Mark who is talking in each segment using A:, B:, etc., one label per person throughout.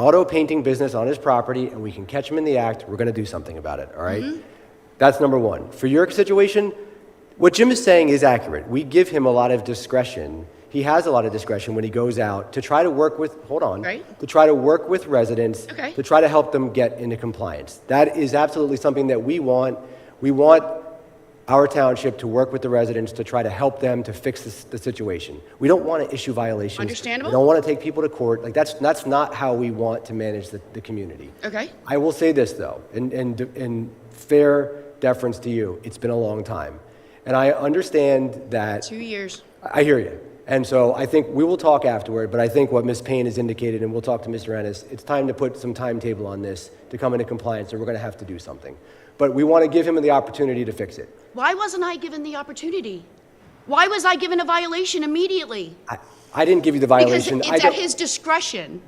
A: auto painting business on his property and we can catch him in the act, we're going to do something about it, all right?
B: Mm-hmm.
A: That's number one. For your situation, what Jim is saying is accurate. We give him a lot of discretion. He has a lot of discretion when he goes out to try to work with, hold on,
B: Right.
A: to try to work with residents
B: Okay.
A: to try to help them get into compliance. That is absolutely something that we want. We want our township to work with the residents to try to help them to fix this, the situation. We don't want to issue violations.
B: Understandable.
A: We don't want to take people to court. Like that's that's not how we want to manage the, the community.
B: Okay.
A: I will say this though, in, in, in fair deference to you, it's been a long time. And I understand that
B: Two years.
A: I hear you. And so I think we will talk afterward, but I think what Ms. Payne has indicated, and we'll talk to Mr. Ennis, it's time to put some timetable on this to come into compliance, or we're going to have to do something. But we want to give him the opportunity to fix it.
B: Why wasn't I given the opportunity? Why was I given a violation immediately?
A: I, I didn't give you the
B: Because
A: violation. I
B: it's at
A: don't-
B: his discretion.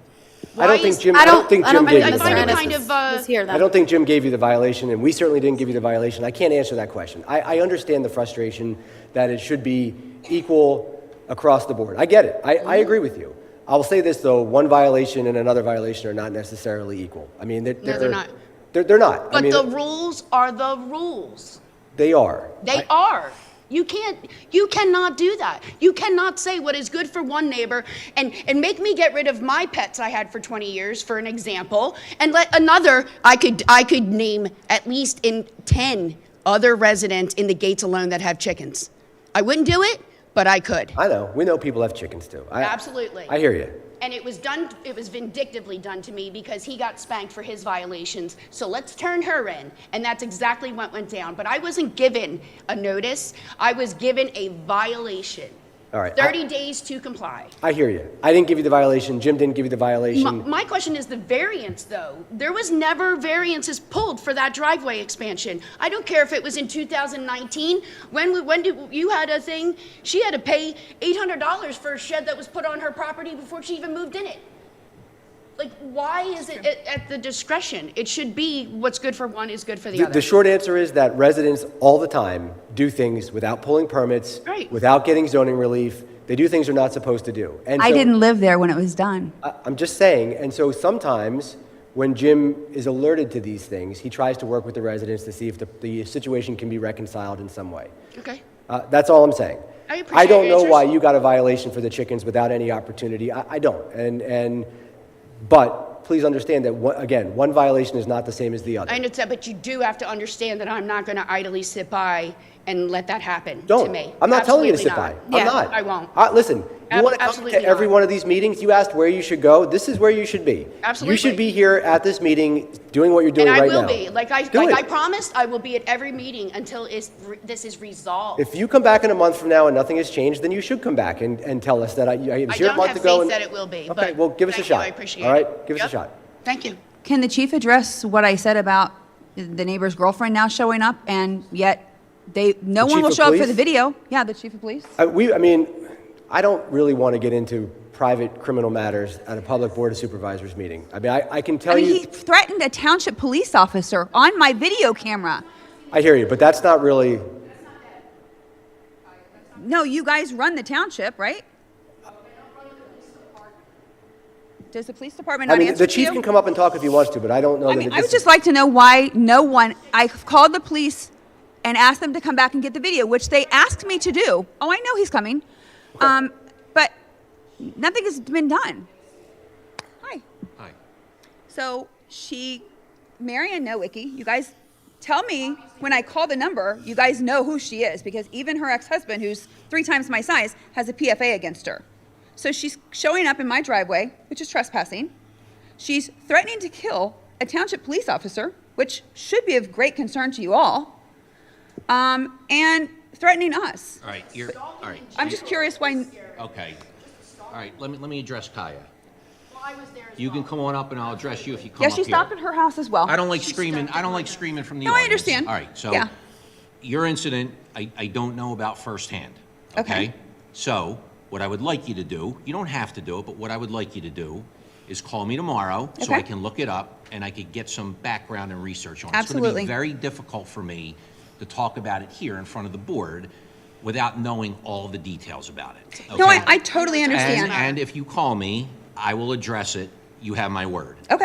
A: I don't
B: Why
A: think
B: is-
A: Jim-
B: I
A: I don't
B: don't-
A: think
B: I
A: Jim
B: don't-
A: gave you the
B: I find it
A: violation.
B: kind of, uh,
C: Let's hear
A: I
C: that.
A: don't think Jim gave you the violation, and we certainly didn't give you the violation. I can't answer that question. I, I understand the frustration that it should be equal across the board. I get it. I, I agree with you. I will say this, though one violation and another violation are not necessarily equal. I mean, they're,
B: they're not.
A: They're, they're not. I
B: but
A: mean,
B: the rules are the rules.
A: they are.
B: They are. You can't, you cannot do that. You cannot say what is good for one neighbor and, and make me get rid of my pets I had for 20 years, for an example, and let another, I could, I could name at least in 10 other residents in the gates alone that have chickens. I wouldn't do it, but I could.
A: I know. We know people have chickens, too. I,
B: Absolutely.
A: I hear you.
B: And it was done, it was vindictively done to me because he got spanked for his violations. So let's turn her in. And that's exactly what went down. But I wasn't given a notice, I was given a violation.
A: All right, I-
B: 30 days to comply.
A: I hear you. I didn't give you the violation. Jim didn't give you the violation.
B: My, my question is the variance, though. There was never variances pulled for that driveway expansion. I don't care if it was in 2019, when we, when did, you had a thing, she had to pay $800 for a shed that was put on her property before she even moved in it. Like, why is it at, at the discretion? It should be what's good for one is good for the
A: The, the
B: other.
A: short answer is that residents all the time do things without pulling permits,
B: Right.
A: without getting zoning relief. They do things they're not supposed to do. And
C: I
A: so-
C: didn't live there when it was done.
A: I, I'm just saying. And so sometimes when Jim is alerted to these things, he tries to work with the residents to see if the, the situation can be reconciled in some way.
B: Okay.
A: Uh, that's all I'm saying.
B: I appreciate
A: don't know
B: your
A: why
B: answers.
A: you got a violation for the chickens without any opportunity. I, I don't. And and but please understand that one, again, one violation is not the same as the other.
B: I understand, but you do have to understand that I'm not gonna idly sit by and let that happen to
A: Don't.
B: me.
A: I'm not telling you to sit
B: Absolutely
A: by.
B: not.
C: Yeah.
A: I'm not.
B: I won't.
A: Uh, listen, you
B: Ab-
A: want to come to
B: absolutely
A: every
B: not.
A: one of these meetings? You asked where you should go. This is where you should be. You
B: Absolutely.
A: should be here at this meeting, doing what you're doing
B: And I
A: right
B: will
A: now.
B: be, like I,
A: Do
B: like
A: it.
B: I promised, I will be at every meeting until is, this is resolved.
A: If you come back in a month from now and nothing has changed, then you should come back and, and tell us that I, I was
B: I
A: here a
B: don't
A: month
B: have
A: ago.
B: faith
A: and-
B: that it will be, but.
A: Okay, well, give us a
B: thank
A: shot.
B: you, I appreciate it.
A: All right, give us a
B: Yep.
A: shot.
B: Thank you.
C: Can the chief address what I said about the neighbor's girlfriend now showing up and yet they,
A: The
C: no one
A: chief
C: will
A: of
C: show up for
A: police?
C: the video? Yeah, the chief of police.
A: I, Uh, we, I mean, I don't really want to get into private criminal matters at a public board of supervisors meeting. I mean, I, I can tell
C: I mean,
A: you.
C: he threatened a township police officer on my video camera.
A: I hear you, but that's not really.
C: No, you guys run the township, right? Does the police department
A: I
C: not
A: mean,
C: answer
A: the
C: to
A: chief
C: you?
A: can come up and talk if he wants to, but I don't know
C: I
A: that.
C: mean,
A: it-
C: I
A: this
C: would
A: is-
C: just like to know why no one, I called the police and asked them to come back and get the video, which they asked me to do. Oh, I know he's coming. Um, but nothing has been done. Hi.
D: Hi.
C: So she, Marianne Nowicki, you guys tell me when I call the number, you guys know who she is because even her ex husband, who's three times my size, has a PFA against her. So she's showing up in my driveway, which is trespassing. She's threatening to kill a township police officer, which should be of great concern to you all, um, and threatening us.
D: All right, you're, all right,
C: I'm just curious why.
D: okay. All right, let me, let me address Kaya.
B: Well, I was there as
D: You can come on up and I'll address you if you come
C: Yeah,
D: up
C: she
D: here.
C: stopped at her house as well.
D: I don't like screaming, I don't like screaming from the
C: No, I
D: audience.
C: understand.
D: All right, so,
C: Yeah.
D: your incident, I, I don't know about firsthand,
C: Okay.
D: okay? So, what I would like you to do, you don't have to do it, but what I would like you to do is call me tomorrow so I
C: Okay.
D: can look it up and I could get some background and research on it. It's
C: Absolutely.
D: gonna be very difficult for me to talk about it here in front of the board without knowing all the details about it.
C: No, I,
D: okay?
C: I totally
D: And,
C: understand.
D: and if you call me, I will address it.
E: you have my word.
D: Okay.